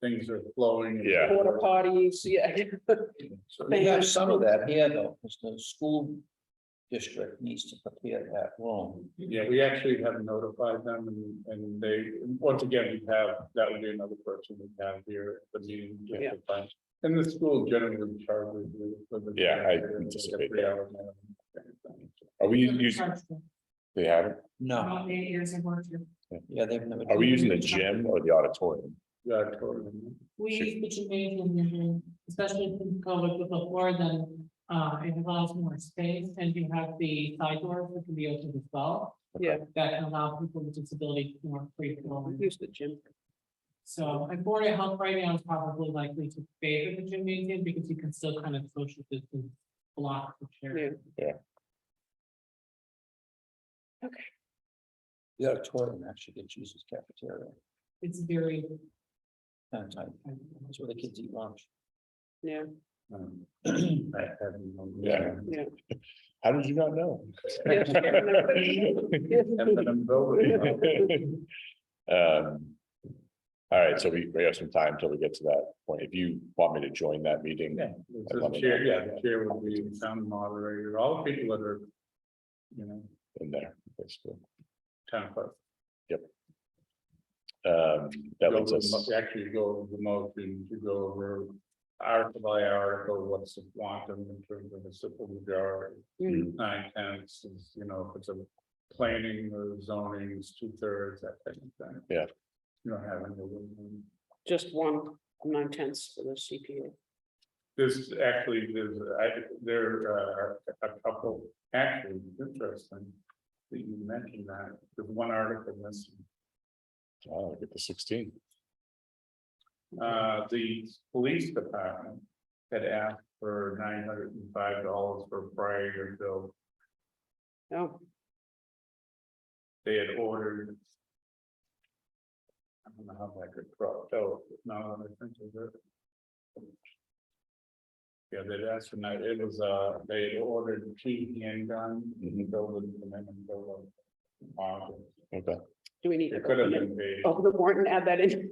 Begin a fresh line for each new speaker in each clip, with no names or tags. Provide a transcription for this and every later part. things are flowing.
Yeah.
Porta potties, yeah.
So we have some of that here though, because the school district needs to prepare that room.
Yeah, we actually have notified them and, and they, once again, we have, that would be another person we have here at the meeting. just to
Yeah.
find- And the school generally charges. you with the-
Yeah, I
like a
anticipate
three-hour minimum.
Are we
Different
using,
parts of
they haven't,
it.
No,
All the areas I worked in.
yeah, they've never.
are we using the gym or the auditorium?
Yeah, totally.
We use the gymnasium, usually, especially if you go with the floor, then uh it allows more space and you have the side doors that can be open as well.
Yeah.
That can allow people with disabilities more free flow.
Use the gym.
So like Board of Health right now is probably likely to favor the gymnasium because you can still kind of social distance block the
Yeah.
chair.
The auditorium actually gets used as cafeteria,
It's very.
kind of type, that's where the kids eat lunch.
Yeah,
Um,
It
I have no-
Yeah.
yeah.
How did you not know?
And then I'm voting.
Um, All right, so we, we have some time till we get to that point. If you want me to join that meeting,
Yeah, it's just chair, yeah, the chair would be the town moderator, all the people that are. You know,
in there, basically.
town clerk.
Um, that
go
leads
over
us,
the mo- Actually go over the motion to go over article by article, what's the quantum in terms of the simple majority,
Mm,
nine tenths, is, you know, if it's a. Planning or zoning is two thirds, that type of thing.
Yeah.
You don't have any.
Just one, nine tenths for the CPA.
There's actually, there's, I, there are a couple, actually, interesting. That you mentioned that, there's one article missing.
oh, get the sixteen.
Uh, the police department had asked for nine hundred and five dollars for a prior year bill.
Oh,
They had ordered. I don't know how that could crop, oh, now that I think of it. Yeah, they'd asked for nine, it was, uh, they had ordered two handguns,
Mhm.
building them in and building.
Okay,
do we need? to
It could have
open it?
been paid.
Oh, the warrant, add that in.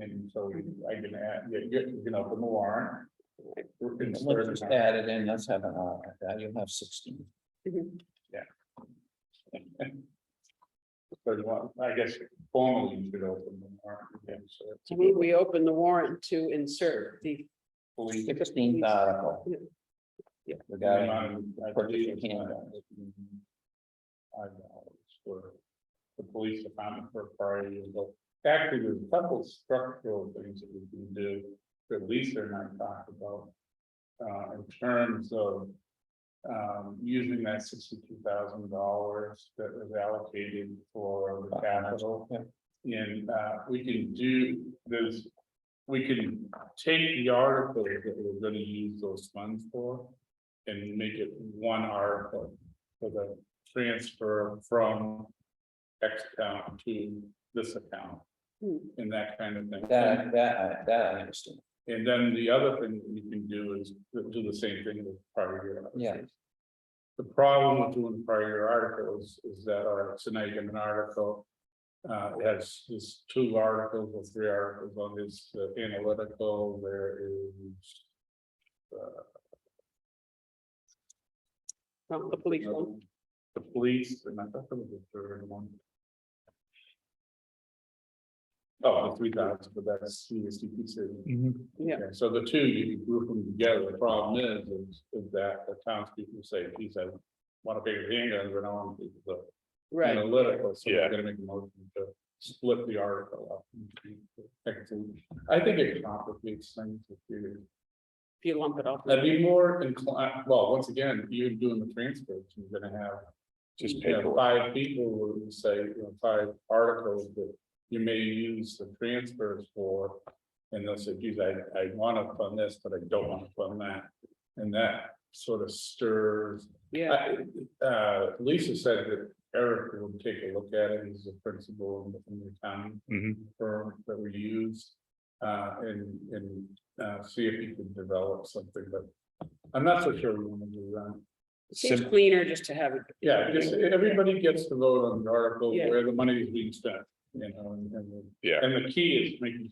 And so I can add, you, you you know, from the warrant. We're
Let's
concerned
just
about-
add it in, let's have an, hour like uh, that. you'll have sixteen.
Mhm.
But well, I guess formally you should open the warrant. again, so it's
I mean, we open the warrant to insert the,
fully-
Sixteenth article.
Yeah. Yeah.
Regarding
Um, I
purchase
believe
of
it's not-
handguns.
Five dollars for the police department for priority, but actually there's a couple structural things that we can do, that Lisa and I talked about. Uh, in terms of, um, using that sixty-two thousand dollars that was allocated for the capital.
Yeah.
And uh, we can do, there's, we can take the article that we're gonna use those funds for. And make it one article for the transfer from X account to this account
Hmm.
and that kind of thing.
That, that, I- that I understand,
And then the other thing that you can do is do the same thing with prior year. articles.
Yeah.
The problem with doing prior year articles is that, all right, so now you get an article. Uh, it has this two articles or three articles on this uh, analytical, there is.
oh, the police one.
The police, and I thought there was a third one. Oh, the three thousand, but that's CSDP city.
Yeah.
Okay, So the two, you can group them together, the problem is, is- is that the townspeople say, geez, I want a bigger handgun, but I want to keep the
Right,
analytical, so
Yeah.
we're gonna make a motion to split the article up. I think it complicates things if you
if you lump it all.
I'd be more inclined, well, once again, you're doing the transcripts, you're gonna have.
Just
you know,
paperwork.
Five people who say, you know, five articles that you may use the transfers for. And they'll say, geez, I, I wanna fund this, but I don't wanna fund that. And that sort of stirs
Yeah,
I- Uh, Lisa said that Eric will take a look at it, he's a principal in the town
Mhm.
firm that we use. Uh, and, and, uh, see if he can develop something, but I'm not so sure we wanna do that.
seems
Sim-
cleaner just to have it.
Yeah, just, everybody gets to vote on the article
Yeah.
where the money is being spent, you know, and, and. the-
Yeah.
And the key is making